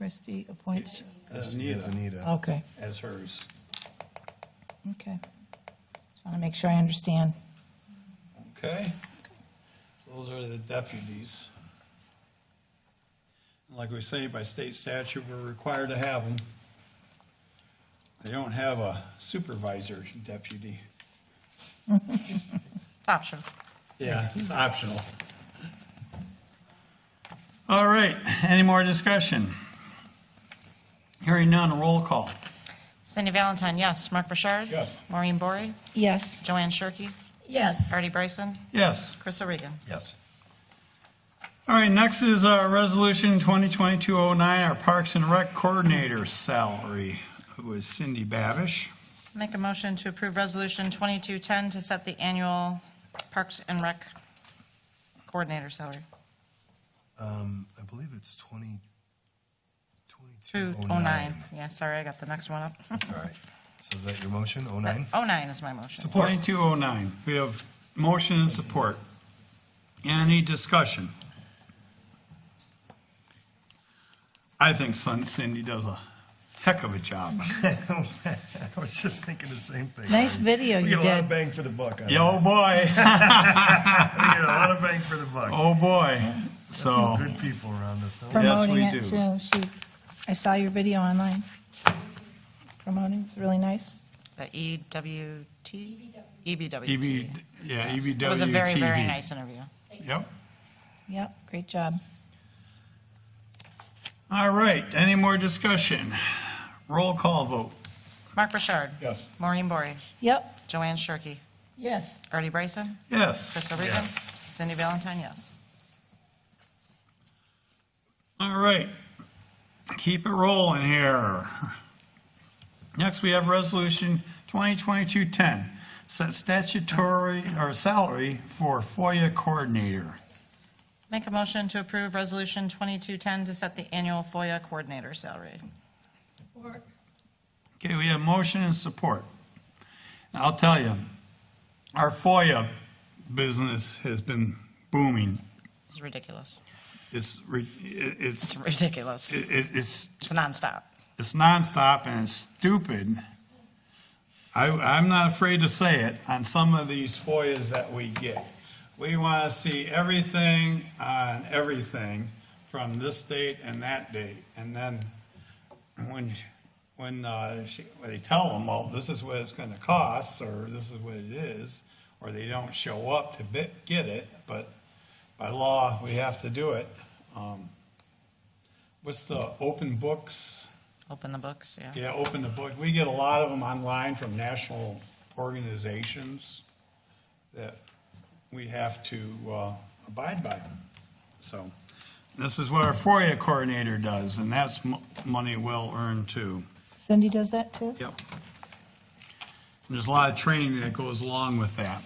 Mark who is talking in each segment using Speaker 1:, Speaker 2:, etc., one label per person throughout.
Speaker 1: Christie appoints,
Speaker 2: As
Speaker 3: As
Speaker 2: Anita,
Speaker 3: Anita.
Speaker 1: okay,
Speaker 2: as hers.
Speaker 1: okay. Just want to make sure I understand.
Speaker 2: Okay? So Those are the deputies. And Like we say, by state statute, we're required to have them. They don't have a supervisor deputy.
Speaker 1: Option.
Speaker 2: Yeah, it's optional. All right, any more discussion? Hearing none, roll call.
Speaker 4: Cindy Valentine, yes. Mark Burchard?
Speaker 2: Yes.
Speaker 4: Maureen Bory?
Speaker 1: Yes.
Speaker 4: Joanne Shirkey?
Speaker 5: yes,
Speaker 4: Artie Bryson?
Speaker 2: Yes.
Speaker 4: Chris Oregan?
Speaker 3: Yes.
Speaker 2: All right, next is uh, Resolution 2022-09, our Parks and Rec Coordinator salary, who is Cindy Babish.
Speaker 4: Make a motion to approve Resolution 2210 to set the annual Parks and Rec coordinator salary.
Speaker 3: Um, I believe it's 20,
Speaker 4: 209,
Speaker 3: 2209.
Speaker 4: yeah, sorry, I got the next one up.
Speaker 3: That's all right. So is that your motion, 09?
Speaker 4: 09 is my motion.
Speaker 2: 2209, we have motion and support. Any discussion? I think Cin- Cindy does a heck of a job.
Speaker 3: I was just thinking the same thing.
Speaker 1: Nice video
Speaker 3: We
Speaker 1: you
Speaker 3: get a lot of
Speaker 1: did.
Speaker 3: bang for the buck. on
Speaker 2: Yo, oh boy,
Speaker 3: that. We get a lot of bang for the buck.
Speaker 2: oh, boy.
Speaker 3: Got
Speaker 2: So,
Speaker 3: Some good people around us, don't we?
Speaker 2: Yes,
Speaker 1: Promoting
Speaker 2: we
Speaker 1: it
Speaker 2: do.
Speaker 1: too. She, I saw your video online. Promoting, it's really nice.
Speaker 4: Is that EWT? EBWT.
Speaker 2: EB, E yeah, E EBWTV.
Speaker 4: It was a very, very nice interview.
Speaker 2: Yep.
Speaker 1: Yep, great job.
Speaker 2: All right, any more discussion? Roll call vote.
Speaker 4: Mark Burchard?
Speaker 2: Yes.
Speaker 4: Maureen Bory?
Speaker 1: Yep,
Speaker 4: Joanne Shirkey?
Speaker 5: yes,
Speaker 4: Artie Bryson?
Speaker 2: Yes.
Speaker 4: Chris Oregan?
Speaker 3: Yes.
Speaker 4: Cindy Valentine, yes.
Speaker 2: All right. Keep it rolling here. Next, we have Resolution 2022-10, set statutory or salary for FOIA coordinator.
Speaker 4: Make a motion to approve Resolution 2210 to set the annual FOIA coordinator salary.
Speaker 5: or,
Speaker 2: Okay, we have motion and support. And I'll tell you, our FOIA business has been booming.
Speaker 4: It's ridiculous.
Speaker 2: It's, re- it- it's,
Speaker 4: It's ridiculous.
Speaker 2: it- it- it's
Speaker 4: It's nonstop.
Speaker 2: it's nonstop and it's stupid. I, I'm not afraid to say it on some of these FOIAs that we get. We want to see everything on everything from this date and that date. And then when, when uh, she- when they tell them, well, this is what it's going to cost, or this is what it is, or they don't show up to bit- get it, but by law, we have to do it. Um, What's the open books?
Speaker 4: Open the books, yeah.
Speaker 2: Yeah, open the book. We get a lot of them online from national organizations that we have to uh, abide by. So this is what our FOIA coordinator does, and that's mo- money well earned too.
Speaker 1: Cindy does that too?
Speaker 2: Yep. And There's a lot of training that goes along with that.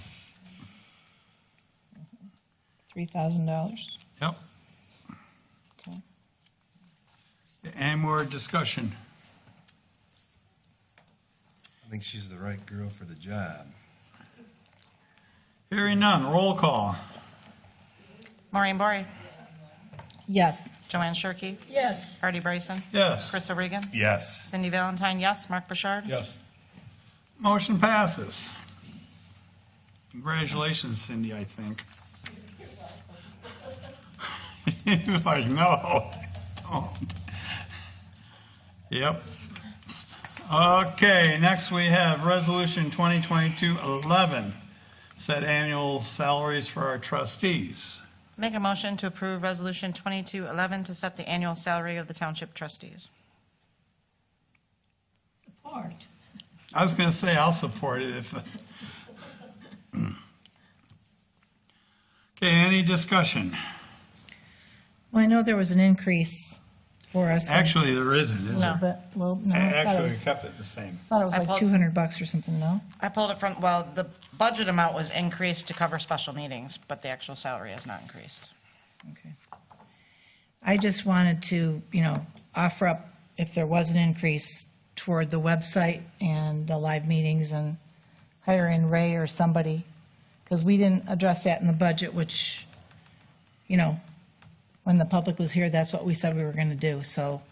Speaker 1: $3,000.
Speaker 2: Yep.
Speaker 1: Okay.
Speaker 2: Any more discussion?
Speaker 3: I think she's the right girl for the job.
Speaker 2: Hearing none, roll call.
Speaker 4: Maureen Bory?
Speaker 1: Yes.
Speaker 4: Joanne Shirkey?
Speaker 5: yes.
Speaker 4: Artie Bryson?
Speaker 2: Yes.
Speaker 4: Chris Oregan?
Speaker 3: Yes.
Speaker 4: Cindy Valentine, yes. Mark Burchard?
Speaker 2: Yes. Motion passes. Congratulations, Cindy, I think. He's like, no, don't." Yep. Okay, next we have Resolution 2022-11, set annual salaries for our trustees.
Speaker 4: Make a motion to approve Resolution 2211 to set the annual salary of the township trustees.
Speaker 5: Support,
Speaker 2: I was gonna say I'll support it if. Okay, any discussion?
Speaker 1: Well, I know there was an increase for us.
Speaker 2: Actually, there isn't, is
Speaker 4: No.
Speaker 2: there?
Speaker 1: But, well, no, I thought it
Speaker 2: Actually, we
Speaker 1: was,
Speaker 2: kept it the same.
Speaker 1: thought it was
Speaker 4: I
Speaker 1: like
Speaker 4: pulled-
Speaker 1: 200 bucks or something, no?
Speaker 4: I pulled it from, well, the budget amount was increased to cover special meetings, but the actual salary has not increased.
Speaker 1: Okay. I just wanted to, you know, offer up if there was an increase toward the website and the live meetings and hiring Ray or somebody, because we didn't address that in the budget, which, you know, when the public was here, that's what we said we were going to do, so